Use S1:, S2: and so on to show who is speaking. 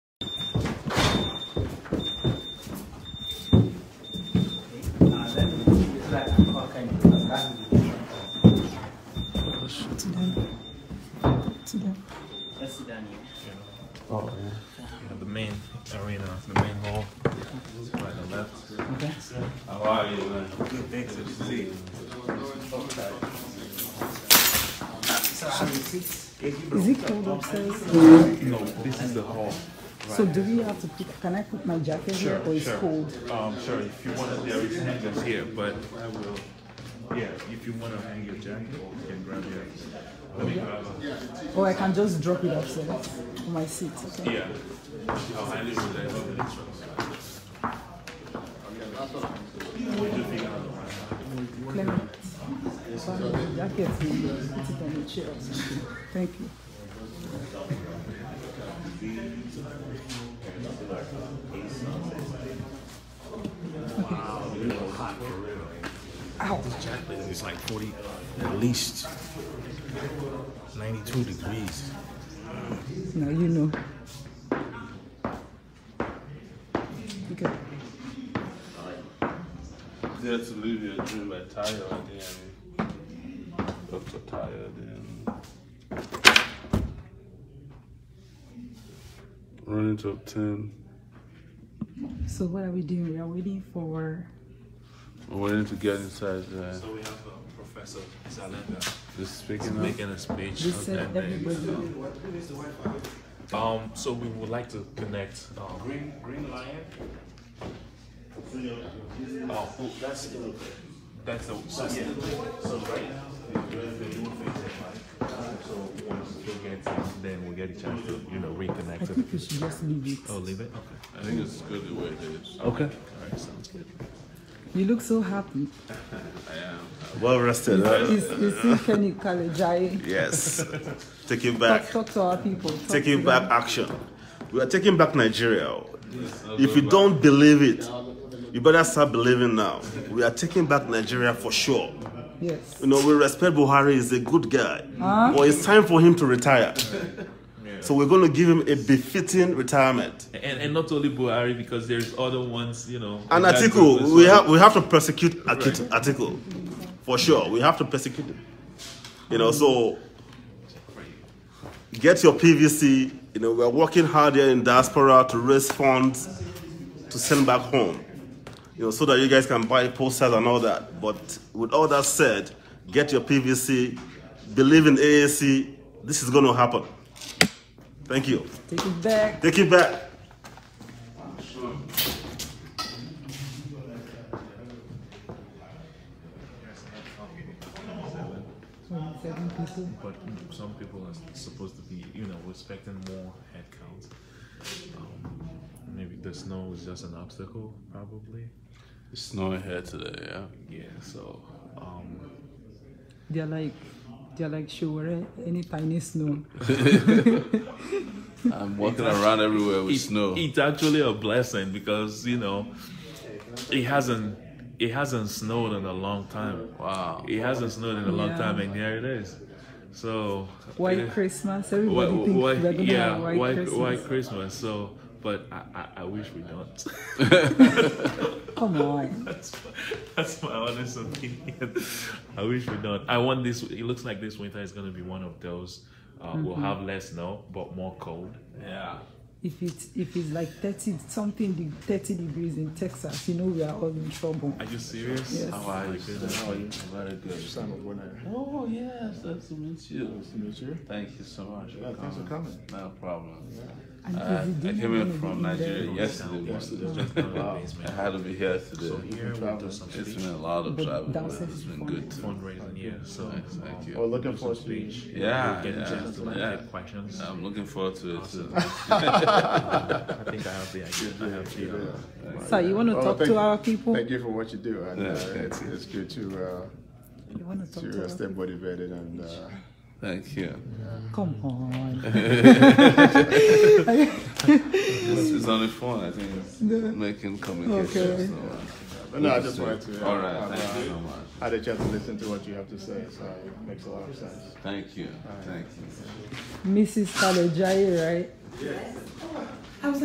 S1: Sudan.
S2: That's Sudan.
S1: Oh,
S3: Yeah, the main arena, the main hall. By the left.
S2: Okay.
S3: How are you, man?
S1: Is it cold upstairs?
S3: No, this is the hall.
S1: So do we have to pick? Can I put my jacket
S3: Sure,
S1: here or it's
S3: sure.
S1: cold?
S3: Um, sure, if you want to, there is hangers here, but I will. Yeah, if you want to hang your jacket, you can grab your. Let me grab it.
S1: Or I can just drop it upstairs on my seat. Okay.
S3: Yeah. I'll hand it with that. other instructions. We just figure out the one.
S1: Let me find my jacket and put it on the chair. or something. Thank you. Ow.
S4: It's like 40, at least 92 degrees.
S1: Now you know. Okay.
S5: That's to leave your dream by tire then up to tire then running top ten.
S1: So what are we doing? We are waiting for.
S5: I'm waiting to get inside the
S3: So we have um, Professor Zalenda
S5: the speaking up.
S3: making a speech.
S1: They said
S3: and then-
S1: everybody.
S3: Um, so we would like to connect. Um, Green Green Lion. Oh, oh, that's the that's the so, yeah. so right. So once we get it, then we get a chance to you know reconnect.
S1: I
S3: To the,
S1: think we should just leave it.
S3: oh, leave it. Okay.
S5: I think it's good the way it is.
S3: Okay. All right. Sounds good.
S1: You look so happy.
S5: I am.
S4: Well rested, huh?
S1: It's, it's in Kenny Kalejai.
S4: Yes. Taking
S1: Talk,
S4: back,
S1: talk to our people. Talk
S4: taking
S1: to
S4: back
S1: them.
S4: action. We are taking back Nigeria. If you don't believe it, you better start believing now. We are taking back Nigeria for sure.
S1: Yes.
S4: You know, we respect Buhari, he's a good guy. But it's time for him to retire. So we're going to give him a befitting retirement.
S3: And and not only Buhari because there's other ones you know.
S4: And
S3: in that group as
S4: Atiku, we
S3: well.
S4: have we have to persecute Akit- Atiku for sure. We have to persecute him. You know, so get your PVC. You know, we're working hard here in diaspora to raise funds to send back home. You know, so that you guys can buy posters and all that. But with all that said, get your PVC. Believe in AAC. This is going to happen. Thank you.
S1: Take it back.
S4: Take it back.
S1: Twenty-seven people.
S3: but some people are supposed to be, you know, expecting more headcount. Um, maybe the snow is just an obstacle, probably.
S5: It's snowing here today, yeah.
S3: Yeah. So, um,
S1: They're like, they're like sure eh? any tiny snow.
S5: I'm walking around everywhere with
S3: it-
S5: snow.
S3: it's actually a blessing because you know, it hasn't it hasn't snowed in a long time.
S5: Wow.
S3: It hasn't snowed in a long
S1: Yeah.
S3: time, and here it is. So
S1: White
S3: yeah.
S1: Christmas.
S3: Why,
S1: Everybody thinks
S3: why,
S1: we're gonna
S3: yeah,
S1: have
S3: white,
S1: white
S3: white,
S1: Christmas.
S3: Christmas. So, but I, I, I wish we don't.
S1: Come on.
S3: That's my, that's my honest opinion. I wish we don't. I want this. It looks like this winter is going to be one of those. Uh, We'll have less snow, but more cold.
S5: Yeah.
S1: If it's if it's like thirty something de- thirty degrees in Texas, you know we are all in trouble.
S3: Are you serious?
S1: Yes.
S5: How are you? How are you? Very good. Oh yes, nice to meet you. Nice to meet you. Thank you so much. Yeah, thanks for coming. No problem.
S1: And
S5: I,
S1: is the
S5: I
S1: dinner
S5: came
S1: gonna
S5: in
S1: be
S5: from
S1: there?
S5: Nigeria yesterday. morning.
S3: Wow.
S5: I had to be here today.
S3: So here we'll do some
S5: It's
S3: speech
S5: been a lot of
S1: But
S5: travel,
S1: that was
S5: but it's been
S1: fun.
S5: good too.
S3: fundraising. Yeah. So
S5: Thanks, thank
S3: um,
S5: you.
S6: We're Oh, looking
S3: do some
S6: forward to you.
S3: speech.
S5: Yeah,
S3: Get a
S5: yeah,
S3: chance to like
S5: yeah.
S3: take questions.
S5: I'm looking forward to it too.
S3: I think I have the idea. I have the. Uh,
S1: So you want to
S6: Well,
S1: talk
S6: Oh, thank
S1: to
S6: you.
S1: our people?
S6: Thank you for what you do. And, uh,
S5: Yeah,
S6: it's, it's good to uh,
S1: You want to talk
S6: to uh,
S1: to
S6: stay
S1: our
S6: motivated and uh,
S5: Thank you.
S1: Come on.
S5: It's, it's on the phone. I think it's making communication.
S1: Okay.
S5: So, uh,
S6: but no, I just wanted to. uh,
S5: all right.
S6: have,
S5: Thank you
S6: uh,
S5: so much.
S6: I had a chance to listen to what you have to say, so it makes a lot of sense.
S5: Thank
S6: uh,
S5: you. Thank you.
S1: Mrs. Kalejai, right?